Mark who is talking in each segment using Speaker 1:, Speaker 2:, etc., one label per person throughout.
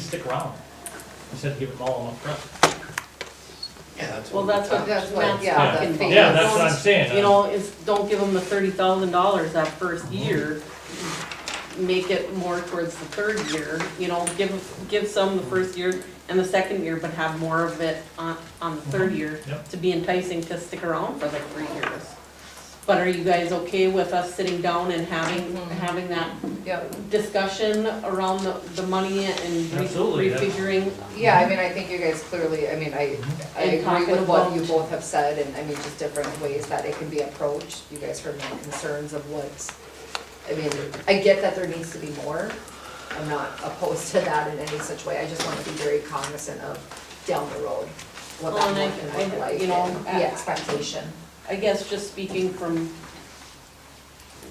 Speaker 1: stick around, instead of giving them all up front.
Speaker 2: Yeah, that's.
Speaker 3: Well, that's what
Speaker 4: Oh, That's what-
Speaker 3: Matt's
Speaker 4: yeah,
Speaker 3: talking
Speaker 4: that's
Speaker 3: about.
Speaker 1: Yeah, that's what I'm
Speaker 3: You
Speaker 1: saying,
Speaker 3: know, it's, don't give them the thirty thousand dollars that first
Speaker 1: Mm-hmm.
Speaker 3: year. Make it more towards the third year, you know, give, give some
Speaker 1: Mm-hmm.
Speaker 3: the first year and the second year, but have more of it on, on the third year
Speaker 1: Mm-hmm. Yep.
Speaker 3: to be enticing to stick around for like three years. But are you guys okay with us sitting down and having,
Speaker 1: Mm-hmm.
Speaker 3: having that
Speaker 4: Yeah,
Speaker 3: discussion around the, the money and re-
Speaker 1: Absolutely, that's-
Speaker 3: refiguring?
Speaker 4: yeah, I mean, I think you guys clearly, I mean, I, I
Speaker 3: And
Speaker 4: agree
Speaker 3: talking
Speaker 4: with what
Speaker 3: about-
Speaker 4: you both have said, and I mean, just different ways that it can be approached. You guys heard my concerns of what, I mean, I get that there needs to be more. I'm not opposed to that in any such way, I just wanna be very cognizant of down the road, what
Speaker 3: Well, and I-
Speaker 4: that
Speaker 3: I-
Speaker 4: can look like,
Speaker 3: you
Speaker 4: and
Speaker 3: know,
Speaker 4: the expectation.
Speaker 3: I guess just speaking from,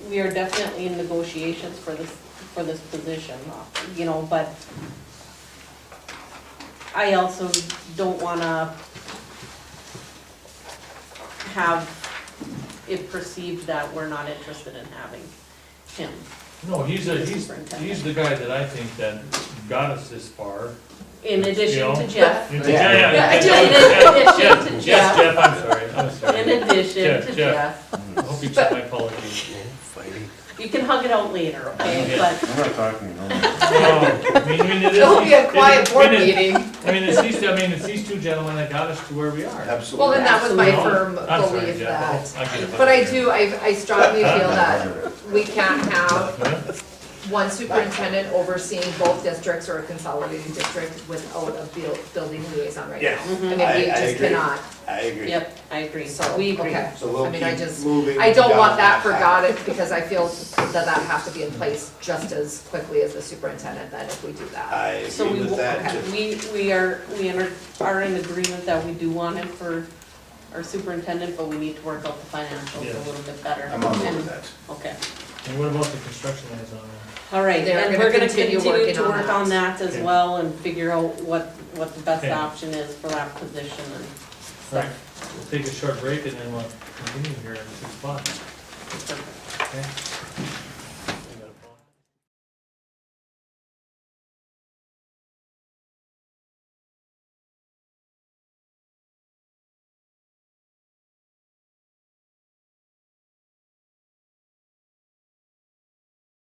Speaker 3: we are definitely in negotiations for this, for this position, you know, but I also don't wanna have it perceived that we're not interested in having him.
Speaker 1: no, he's a, he's, he's the guy that I think that got us this far.
Speaker 3: In addition to
Speaker 1: Yeah.
Speaker 3: Jeff.
Speaker 1: Yeah,
Speaker 2: Yeah.
Speaker 1: yeah,
Speaker 3: Yeah,
Speaker 1: yeah, Jeff,
Speaker 3: In addition to
Speaker 1: Jeff,
Speaker 3: Jeff,
Speaker 1: Jeff, I'm sorry, I'm
Speaker 3: in
Speaker 1: sorry,
Speaker 3: addition
Speaker 1: Jeff,
Speaker 3: to
Speaker 1: Jeff.
Speaker 3: Jeff.
Speaker 1: I hope you took my apology.
Speaker 3: You can hug it out later, okay,
Speaker 1: Yeah.
Speaker 3: but
Speaker 5: I'm not talking, no.
Speaker 1: No, I mean, I mean, it is-
Speaker 4: It'll be a quiet
Speaker 1: it-
Speaker 4: board
Speaker 1: it is-
Speaker 4: meeting.
Speaker 1: I mean, it's these, I mean, it's these two gentlemen that got us to where we are.
Speaker 2: Absolutely.
Speaker 4: Well, and that was my
Speaker 1: You know?
Speaker 4: firm
Speaker 1: I'm sorry,
Speaker 4: belief
Speaker 1: Jeff.
Speaker 4: that,
Speaker 1: I get it.
Speaker 4: but I do, I, I strongly feel that
Speaker 5: Right.
Speaker 4: we can't have
Speaker 1: Huh?
Speaker 4: one superintendent overseeing both districts or a consolidated district without a buil- building liaison right now.
Speaker 2: Yes, Mm-hmm.
Speaker 4: I mean, we
Speaker 2: I- I
Speaker 4: just
Speaker 2: agree.
Speaker 4: cannot,
Speaker 2: I agree.
Speaker 3: Yep, I agree,
Speaker 4: so,
Speaker 3: we agree.
Speaker 4: okay.
Speaker 2: So we'll
Speaker 4: I mean, I
Speaker 2: keep
Speaker 4: just-
Speaker 2: moving.
Speaker 4: I don't
Speaker 2: down
Speaker 4: want
Speaker 2: path.
Speaker 4: that forgotten, because I feel that that has to be in place just as quickly as the superintendent, then if we do that.
Speaker 2: I
Speaker 3: So
Speaker 2: agree
Speaker 3: we,
Speaker 2: with that.
Speaker 3: will- we, we are, we enter- are in agreement that we do want him for our superintendent, but we need to work out the financials
Speaker 1: Yeah.
Speaker 3: a little bit better.
Speaker 2: I'm on board
Speaker 3: And-
Speaker 2: with that.
Speaker 3: Okay,
Speaker 1: And what about the construction liaison?
Speaker 3: all right,
Speaker 4: They're
Speaker 3: and
Speaker 4: gonna
Speaker 3: we're gonna
Speaker 4: continue
Speaker 3: continue
Speaker 4: working
Speaker 3: to
Speaker 4: on
Speaker 3: work
Speaker 4: that.
Speaker 3: on that as
Speaker 1: Okay.
Speaker 3: well and figure out what, what the best
Speaker 1: Okay.
Speaker 3: option is for that position
Speaker 1: All
Speaker 3: and stuff.
Speaker 1: right, we'll take a short break and then we'll continue here in six o'clock.
Speaker 3: Perfect.
Speaker 1: Okay.